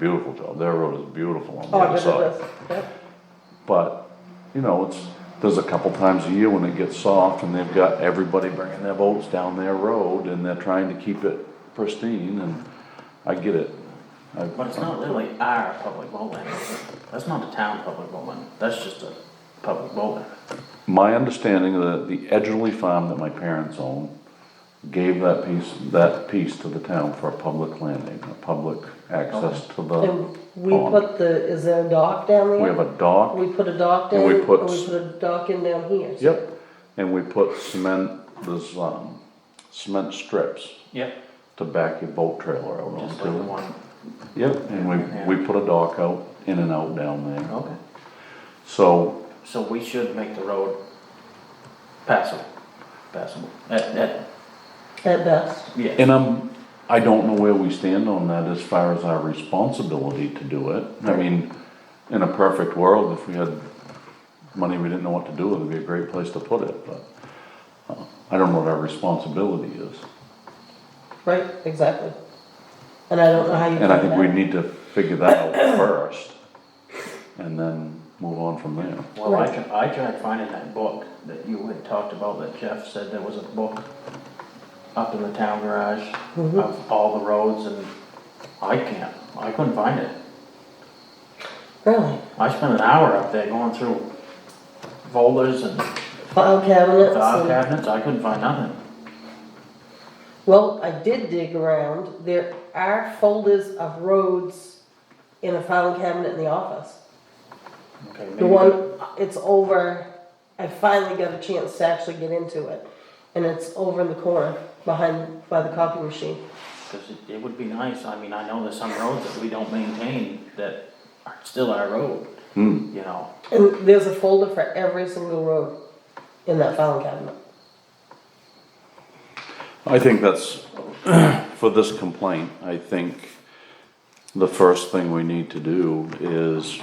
beautiful job. Their road is beautiful on the Oh, I other bet it side. does. Yep. But, you know, it's, there's a couple times a year when it gets soft and they've got everybody bringing their boats down their road and they're trying to keep it pristine and I get it. I- But it's not really our public bowling, is it? that's not a town public bowling, that's just a public bowling. My understanding that the Edgerly farm that my parents own gave that piece, that piece to the town for a public landing, a public access to the And we pond. put the, is there a dock down there? We have a dock, We put a dock And down, we and we put- put a dock in down here. yep, and we put cement, there's, um, cement strips Yep. to back your boat trailer out Just like the onto. one, Yep, and we, we put a dock out, in and out down there. okay, So, so we should make the road passable, passable, at, at, At best, yeah. and I'm, I don't know where we stand on that as far as our responsibility to do it. I mean, in a perfect world, if we had money we didn't know what to do with, it'd be a great place to put it, but uh, I don't know what our responsibility is. right, exactly. And I don't know how you. And I do think we that. need to figure that out first, and then move on from there. Well, I tried, I tried finding that book that you had talked about, that Jeff said there was a book up in the town garage of all the roads, and I can't, I couldn't find it. Really? I spent an hour up there going through folders and File cabinets file and- cabinets, I couldn't find nothing. well, I did dig around, there are folders of roads in a filing cabinet in the office. The Okay, Mm-hmm. maybe- one, it's over, I finally got a chance to actually get into it, and it's over in the corner, behind, by the copy machine. Cause it, it would be nice, I mean, I know there's some roads that we don't maintain that are still our road, Hmm, you know, And there's a folder for every single road in that filing cabinet. I think that's, for this complaint, I think the first thing we need to do is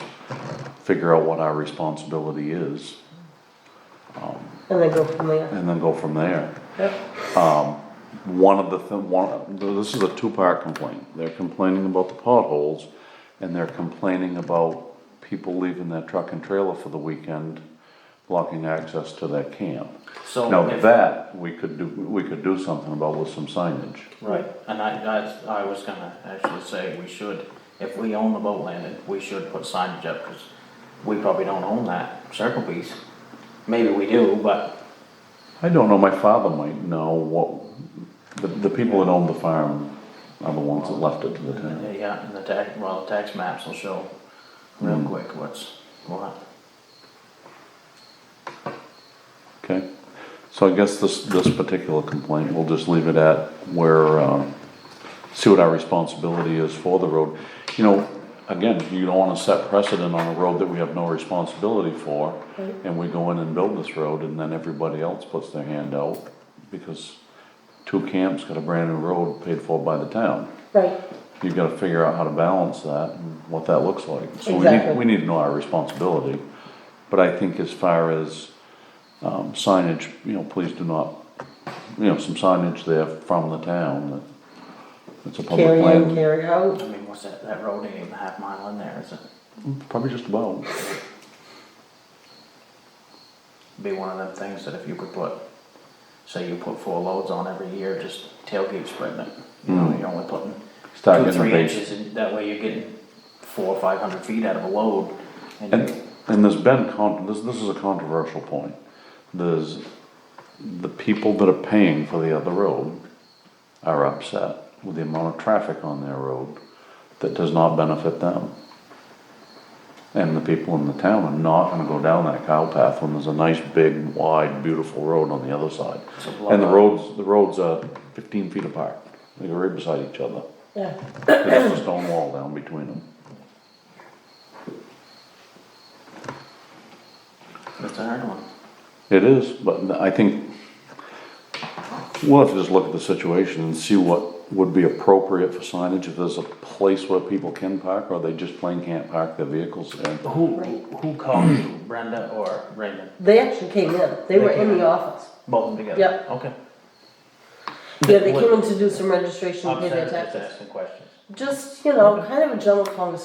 figure out what our responsibility is, And then go from there. and then go from there. Yep. One of the, thi- one, this is a two-part complaint. They're complaining about the potholes, and they're complaining about people leaving their truck and trailer for the weekend, blocking access to their camp. so. Now, if- that, we could do, we could do something about with some signage. Right, and I, that's, I was gonna actually say, we should, if we own the boat landing, we should put signage up, cause we probably don't own that circle piece. Maybe we do, but, I don't know, my father might know what, the, the people that own the farm are the ones that left it to the town. yeah, and the tax, well, the tax maps will show real Hmm. quick what's, what. Okay, so I guess this, this particular complaint, we'll just leave it at where, um, see what our responsibility is for the road. You know, again, you don't wanna set precedent on a road that we have no responsibility for, and we go in and build this road, and then everybody else puts their hand out, because two camps got a brand new road paid for by the town. Right. you gotta figure out how to balance that and what that looks like. So we need, Exactly. we need to know our responsibility, but I think as far as, um, signage, you know, please do not, you know, some signage there from the town that it's a public Carry in, land, carry out. I mean, what's that, that road ain't even a half mile in there, is it? probably just about. Be one of them things that if you could put, say you put four loads on every year, just tailgate spreading it. You know, Mm. you're only putting Start two, getting a three base. inches, and that way you're getting four, or five hundred feet out of a load. And, And and there's been con, this, this is a controversial point. There's, the people that are paying for the other road are upset with the amount of traffic on their road that does not benefit them. And the people in the town are not gonna go down that cow path when there's a nice, big, wide, beautiful road on the other side. it's a And the blowout. roads, the roads are fifteen feet apart, they're right beside each other. Yeah. There's a stone wall down between them. It's a hard one. It is, but I think, we'll have to just look at the situation and see what would be appropriate for signage, if there's a place where people can park, or they just plain can't park their vehicles and. Who, who called you, Brenda or Raymond? They actually came in. They They were in came the in. office. Both of them together? Yep. Okay. Yeah, they What- came in to do some registration, I'm pay sorry, their just taxes. asking questions. just, you know, kind of a general conversation.